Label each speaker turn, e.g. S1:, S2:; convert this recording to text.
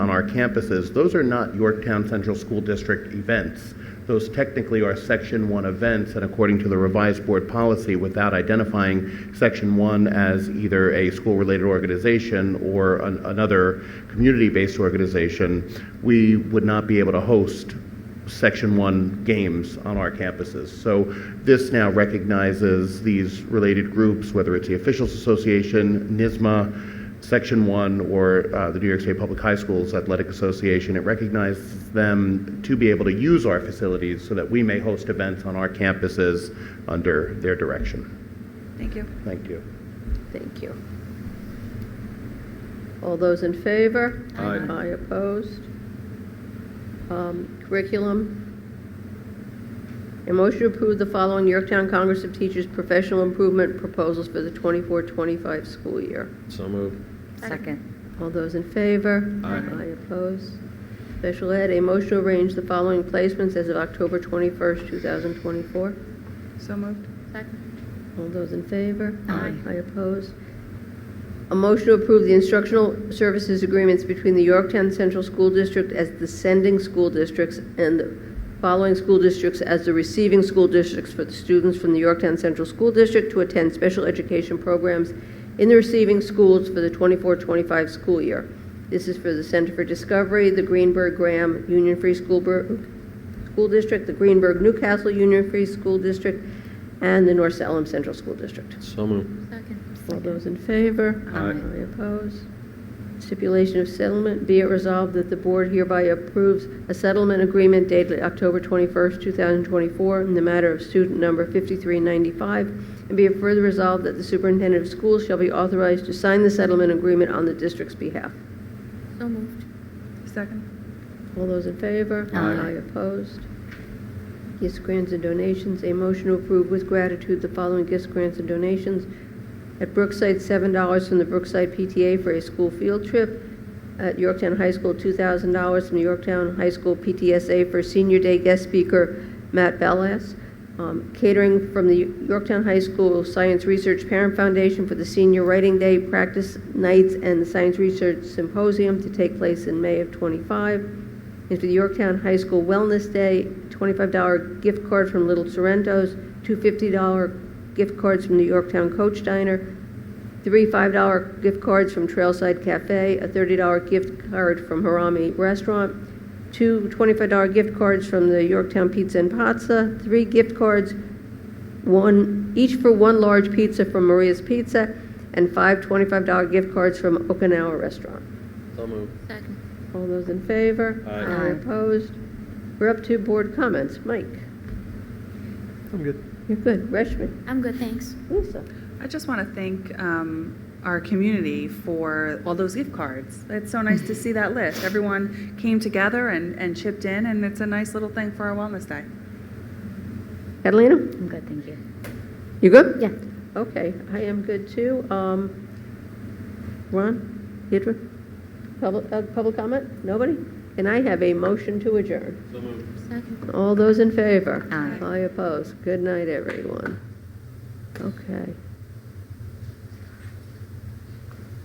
S1: on our campuses, those are not Yorktown Central School District events. Those technically are Section 1 events, and according to the revised board policy, without identifying Section 1 as either a school-related organization or an- another community-based organization, we would not be able to host Section 1 games on our campuses. So this now recognizes these related groups, whether it's the Officials Association, NISMA, Section 1, or uh, the New York State Public High Schools Athletic Association. It recognizes them to be able to use our facilities so that we may host events on our campuses under their direction.
S2: Thank you.
S1: Thank you.
S3: Thank you. All those in favor?
S1: Aye. Aye.
S3: Aye opposed? Um, Curriculum. A motion to approve the following Yorktown Congress of Teachers professional improvement proposals for the 24-25 school year.
S4: So moved.
S2: Second.
S3: All those in favor?
S4: Aye.
S3: Aye opposed? Special Ed, a motion to arrange the following placements as of October 21st, 2024.
S2: So moved.
S3: All those in favor?
S2: Aye.
S3: I oppose. A motion to approve the instructional services agreements between the Yorktown Central School District as the sending school districts and the following school districts as the receiving school districts for the students from the Yorktown Central School District to attend special education programs in the receiving schools for the 24-25 school year. This is for the Center for Discovery, the Greenberg Graham Union Free School Bur- School District, the Greenberg Newcastle Union Free School District, and the North Salem Central School District.
S4: So moved.
S3: All those in favor?
S4: Aye.
S3: I oppose. Stipulation of settlement, be it resolved that the board hereby approves a settlement agreement dated October 21st, 2024, in the matter of student number 5395, and be it further resolved that the superintendent of schools shall be authorized to sign the settlement agreement on the district's behalf.
S5: So moved.
S2: Second.
S3: All those in favor?
S4: Aye.
S3: opposed. Gifts, grants, and donations, a motion to approve with gratitude the following gifts, grants, and donations. At Brookside, $7 from the Brookside PTA for a school field trip. At Yorktown High School, $2,000 from the Yorktown High School PTSA for Senior Day guest speaker Matt Bellas. Um, Catering from the Yorktown High School Science Research Parent Foundation for the Senior Writing Day practice nights and the Science Research Symposium to take place in May of '25 is for the Yorktown High School Wellness Day, $25 gift card from Little Sorrento's, two $50 gift cards from the Yorktown Coach Diner, three $5 gift cards from Trailside Cafe, a $30 gift card from Harami Restaurant, two $25 gift cards from the Yorktown Pizza and Pazza, three gift cards one, each for one large pizza from Maria's Pizza, and five $25 gift cards from Okinawa Restaurant.
S4: So moved.
S5: Second.
S3: All those in favor?
S4: Aye.
S2: Aye.
S3: opposed? We're up to board comments. Mike?
S4: I'm good.
S3: You're good. Reshma?
S5: I'm good, thanks.
S3: Lisa?
S2: I just want to thank um, our community for all those gift cards. It's so nice to see that list. Everyone came together and and chipped in, and it's a nice little thing for our Wellness Day.
S3: Catalina?
S5: I'm good, thank you.
S3: You good?
S5: Yeah.
S3: Okay, I am good too. Um, Ron? Deidre? Public, uh, public comment? Nobody? And I have a motion to adjourn.
S4: So moved.
S5: Second.
S3: All those in favor?
S5: Aye.
S3: I oppose. Good night, everyone. Okay.